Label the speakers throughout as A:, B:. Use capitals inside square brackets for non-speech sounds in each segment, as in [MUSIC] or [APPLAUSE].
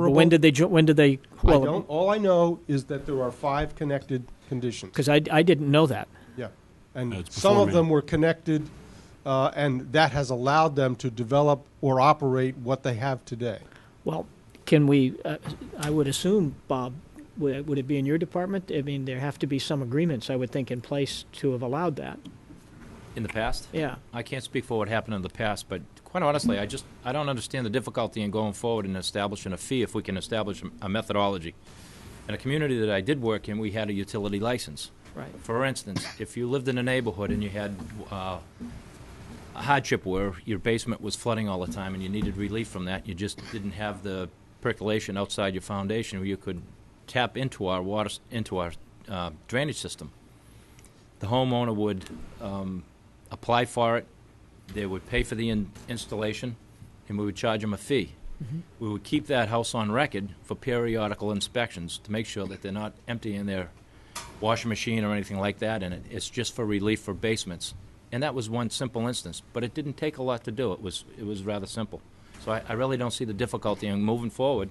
A: Or
B: affordable.
A: When did they, jo- when did they?
B: I
A: well,
B: don't, all I know is that there are five connected conditions.
A: Because I, I didn't know that.
B: Yeah.
C: No,
B: And
C: it's
B: some of
C: performing.
B: them were connected, uh, and that has allowed them to develop or operate what they have today.
A: Well, can we, uh, I would assume, Bob, would would it be in your department? I mean, there have to be some agreements, I would think, in place to have allowed that.
D: In the past?
A: Yeah.
D: I can't speak for what happened in the past, but quite honestly, I just, I don't understand the difficulty in going forward and establishing a fee if we can establish a- a methodology. In a community that I did work in, we had a utility license.
A: Right.
D: For instance, if you lived in a neighborhood and you had uh, a hardship where your basement was flooding all the time and you needed relief from that, you just didn't have the percolation outside your foundation where you could tap into our water, s- into our uh, drainage system. The homeowner would um, apply for it, they would pay for the in- installation, and we would charge them a fee. We would keep that house on record for periodical inspections to make sure that they're not emptying their washing machine or anything like that in it. It's just for relief for basements. And that was one simple instance, but it didn't take a lot to do. It was, it was rather simple. So I, I really don't see the difficulty in moving forward.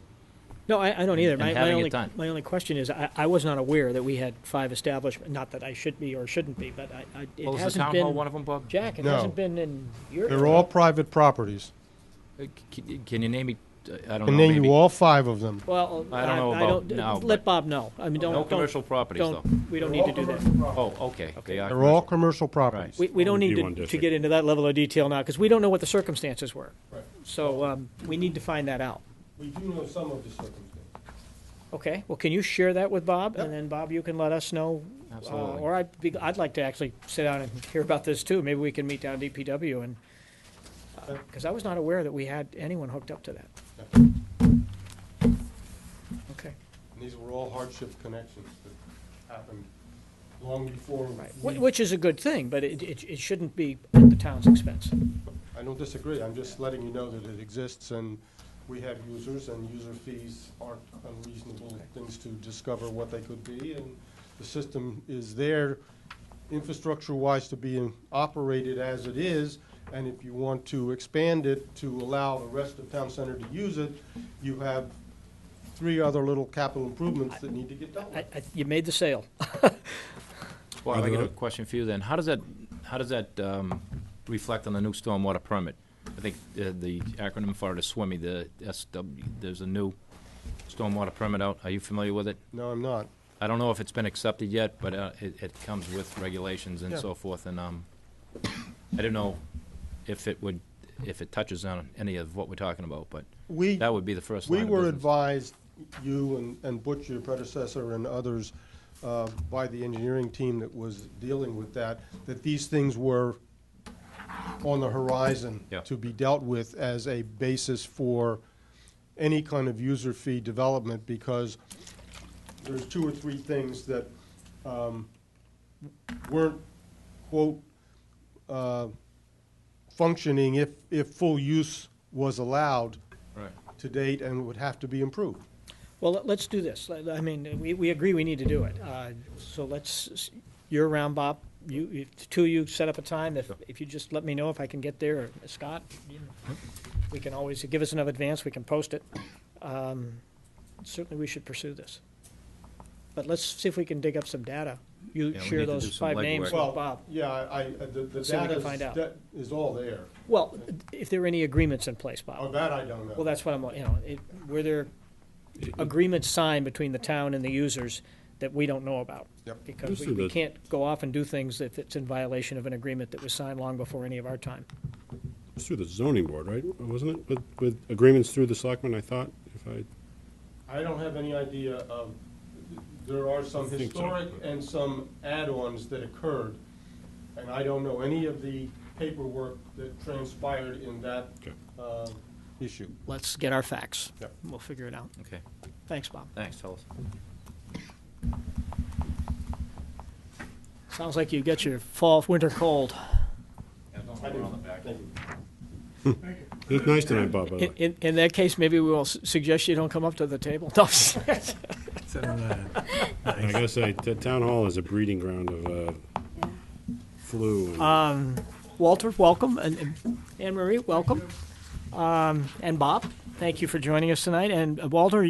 A: No, I, I don't either.
D: And
A: My, my
D: having it
A: only,
D: done.
A: my only question is, I, I was not aware that we had five establishments. Not that I should be or shouldn't be, but I, I, it
D: Well, is the
A: hasn't
D: town
A: been.
D: hall one of them, Bob?
A: Jack, it
B: No.
A: hasn't been in your.
B: They're all private properties.
D: Uh, c- c- Can you name me, uh, I don't know,
B: And then
D: maybe.
B: you all five of them.
A: Well,
D: I don't know
A: I
D: about
A: don't-
D: now,
A: Let
D: but-
A: Bob know. I mean, don't.
D: No
A: don't-
D: commercial properties, though.
A: don't- We don't need to do that.
D: Oh, okay. They are
B: They're all commercial
D: commercial.
B: properties.
A: We, we don't
C: Only
A: need
C: one
A: to, to
C: district.
A: get into that level of detail now, because we don't know what the circumstances were. So, um, we need to find that out.
B: We do know some of the circumstances.
A: Okay, well, can you share that with Bob?
B: Yep.
A: And then, Bob, you can let us know. uh,
D: Absolutely.
A: Or I'd be, I'd like to actually sit down and hear about this too. Maybe we can meet down at DPW and, because I was not aware that we had anyone hooked up to that. Okay,
B: And these were all hardship connections that happened long before.
A: right. Wh-
B: we-
A: Which is a good thing, but it, it, it shouldn't be at the town's expense.
B: I don't disagree, I'm just letting you know that it exists, and we have users, and user fees aren't unreasonable things to discover what they could be, and the system is there infrastructure-wise to be in- operated as it is, and if you want to expand it to allow the rest of town center to use it, you have three other little capital improvements that need to get done.
A: I, I, you made the sale.
D: Well, I
C: Are
D: got
C: there
D: a
C: oth-
D: question for you then. How does that, how does that um, reflect on the new stormwater permit? I think uh, the acronym for it is SWIMI, the SW, there's a new stormwater permit out. Are you familiar with it?
B: No, I'm not.
D: I don't know if it's been accepted yet, but uh, it, it comes with regulations and
B: Yeah.
D: so forth, and um, I don't know if it would, if it touches on any of what we're talking about, but
B: We.
D: that would be the first line
B: We
D: of
B: were
D: business.
B: advised, you and- and Butch, your predecessor, and others, uh, by the engineering team that was dealing with that, that these things were on the horizon
D: Yeah.
B: to be dealt with as a basis for any kind of user fee development, because there's two or three things that um, weren't, quote, uh, functioning if, if full use was allowed
D: Right.
B: to date and would have to be improved.
A: Well, let- let's do this. Let- I mean, we, we agree we need to do it. Uh, So let's, you're around, Bob. You, if the two of you set up a time. If, if you just let me know if I can get there, or Scott, you know, we can always, give us enough advance, we can post it. Um, Certainly, we should pursue this. But let's see if we can dig up some data. You
D: Yeah, we
A: share
D: need to do
A: those
D: some
A: five names
D: legwork.
A: with Bob.
B: yeah, I, I- the, the
A: See if we can
B: data's-
A: find out.
B: that is all there.
A: Well, if there are any agreements in place, Bob.
B: Oh, that I don't know.
A: Well, that's what I'm, you know, it, were there agreements signed between the town and the users that we don't know about?
B: Yep.
A: Because
C: Just
A: we, we
C: the-
A: can't go off and do things if it's in violation of an agreement that was signed long before any of our time.
C: It's through the zoning board, right? Wasn't it? With, with agreements through the selectmen, I thought, if I,
B: I don't have any idea of, there are some
C: I think so.
B: historic and some add-ons that occurred, and I don't know any of the paperwork that transpired in that
C: Okay.
B: uh, issue.
A: Let's get our facts.
B: Yep.
A: We'll figure it out.
D: Okay,
A: Thanks, Bob.
D: thanks, fellas.
A: Sounds like you got your fall, winter cold.
C: it was nice tonight, Bob, by the
A: In, [LAUGHS]
C: way.
A: in, in that case, maybe we'll s- suggest you don't come up to the table. No.
C: I gotta say, the town hall is a breeding ground of, uh, flu. and-
A: Walter, welcome, and and Anne Marie, welcome. Um, and Bob, thank you for joining us tonight. And uh, Walter,